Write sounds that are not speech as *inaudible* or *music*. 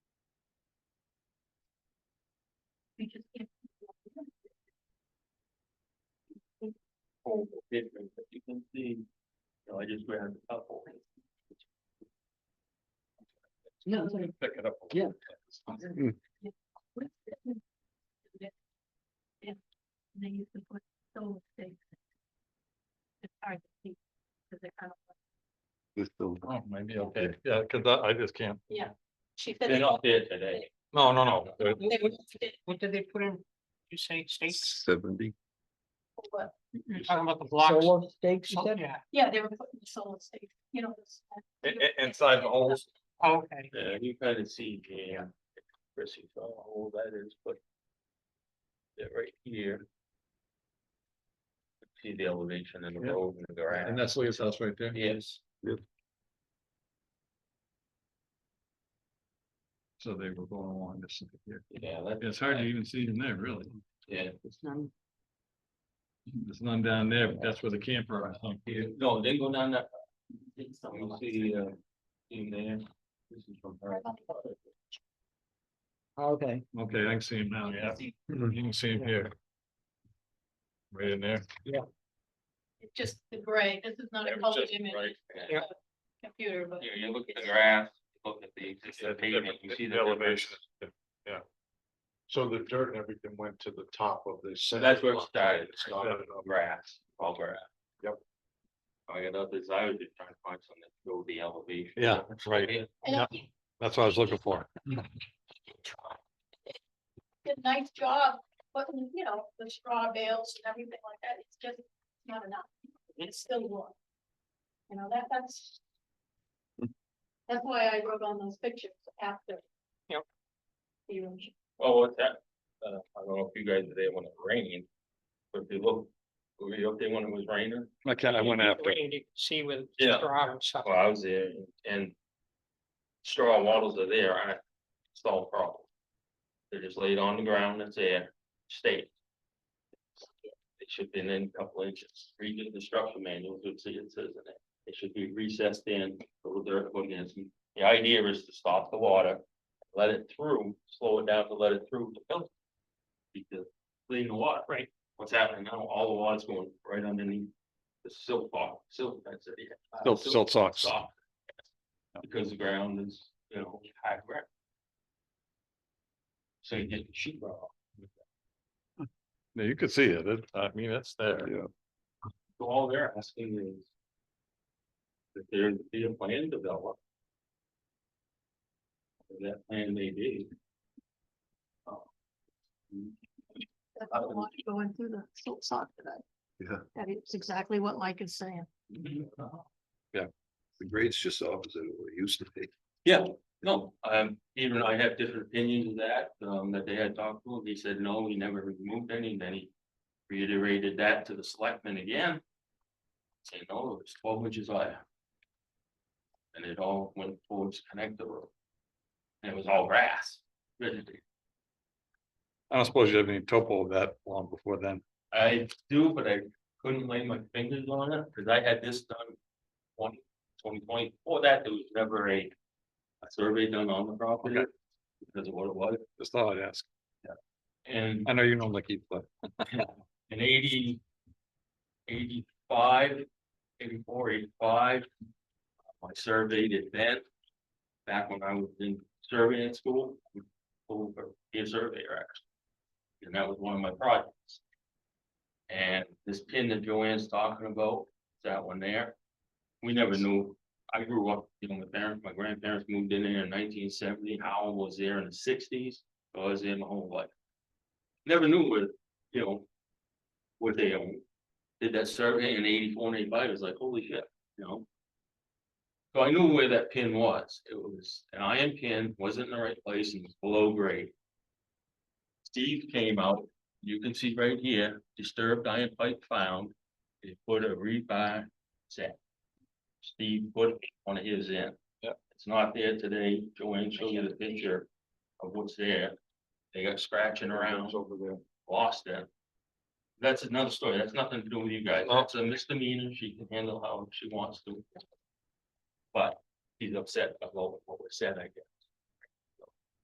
We just can't. whole difference, but you can see, you know, I just grabbed a couple. No, Pick it up. *laughs* Yeah. Yeah. They use the put so things. It's hard to see. Cause they're kind of. This still, Oh, maybe, okay, yeah, cause I, I just can't, Yeah. She said. They're not there today. no, no, no, they're- What did they put in? You say steaks? seventy, You're talking about the blocks? Oh, Solo steaks, you said? Yeah, Yeah, they were putting the solar state, you know. this- i- i- inside the holes, Oh, okay. Yeah, you kind of see, yeah, Chrissy, saw all that is, but. They're right here. See the elevation in the Yeah. road and the ground. and that's Leah's house right there. Yes, So they were going along this, here. yeah, that- it's hard to even see in there, really, Yeah, there's none down there, but that's where the camper, I think, yeah, no, they go down that. You see, uh, in there, eh, this is from her. Okay, okay, I can see him now, yeah, you can see him here. Right in there, It's just the gray, this is not a It was colored just image. right. it's a Computer, but. You, you look at the grass, you look at the Yeah, existing the pavement, different- you see the the elevation. elevation. so the dirt and everything went to the top of the. So that's where it started, it started Started on grass, all grass. Yep. I got others, I was just trying to find something to show the elevation. Yeah, that's right. Yeah, And I Yeah. think That's what I was looking for. you Did a nice job, putting, you know, the straw bales and everything like that, it's just not enough, it's still warm. You know, that, that's. That's why I wrote on those pictures after. Yep. the erosion. Oh, what's that? Uh, I don't know if you guys are there when it rained, but if you look, were you up there when it was raining? I can't, I went after. Where you can See with. Yeah. straw and stuff. Well, I was there and straw wattles are there, I solved problem. They're just laid on the ground, it's there, state. It should be in a couple inches, read the instruction manuals, you'll see it says in it, it should be recessed in, a little dirt put in. The idea is to stop the water, let it through, slow it down to let it through the filter. Because clean the water. Right. What's happening now, all the water's going right underneath the silt box, silt, that's it. yeah. Uh, Silt- silt socks. sock. Because the ground is, you know, high ground. So you get the sheet rock, Yeah, you could see it, it, I mean, it's there. yeah. so all they're asking is. That there be a plan developed. And That plan may be. That's what I want to go into the silt sock today. Yeah. That is exactly what Mike is saying. The grade's just opposite of what it used to be. Yeah, no, um, even I have different opinions of that, um, that they had talked to him, he said, no, he never removed any, then he. Reiterated that to the selectmen again. Saying, no, it was twelve inches higher. And it all went towards connector road. And it was all grass, vegetation. I don't suppose you have any topo of that long before then. I do, but I couldn't lay my fingers on it, cause I had this done. Twenty, twenty twenty, before that, there was never a. A survey done on the property. Because of what it was, Just thought I'd ask. and I know you normally keep, but in eighty. Eighty-five, eighty-four, eighty-five. I surveyed it then. Back when I was in surveying school, we pulled for- be a surveyor actually. And that was one of my projects. And this pin that Joanne's talking about, that one there. We never knew, I grew up, you know, my parents, my grandparents moved in there in nineteen seventy, Howell was there in the sixties, I was there my whole life. Never knew what, you know, what they own. Did that survey in eighty-four and eighty-five, it was like, holy shit, you know? So I knew where that pin was, it was an iron pin, wasn't in the right place and was below grade. Steve came out, you can see right here, disturbed iron pipe found, they put a rebar set. Steve put on his end. Yep. It's not there today, Joanne showed you the picture of what's there, they got scratching around It's over there. lost it. That's another story. That's nothing to do with you guys. Oh. That's a misdemeanor. She can handle how she wants to. But he's upset about what was said, I guess.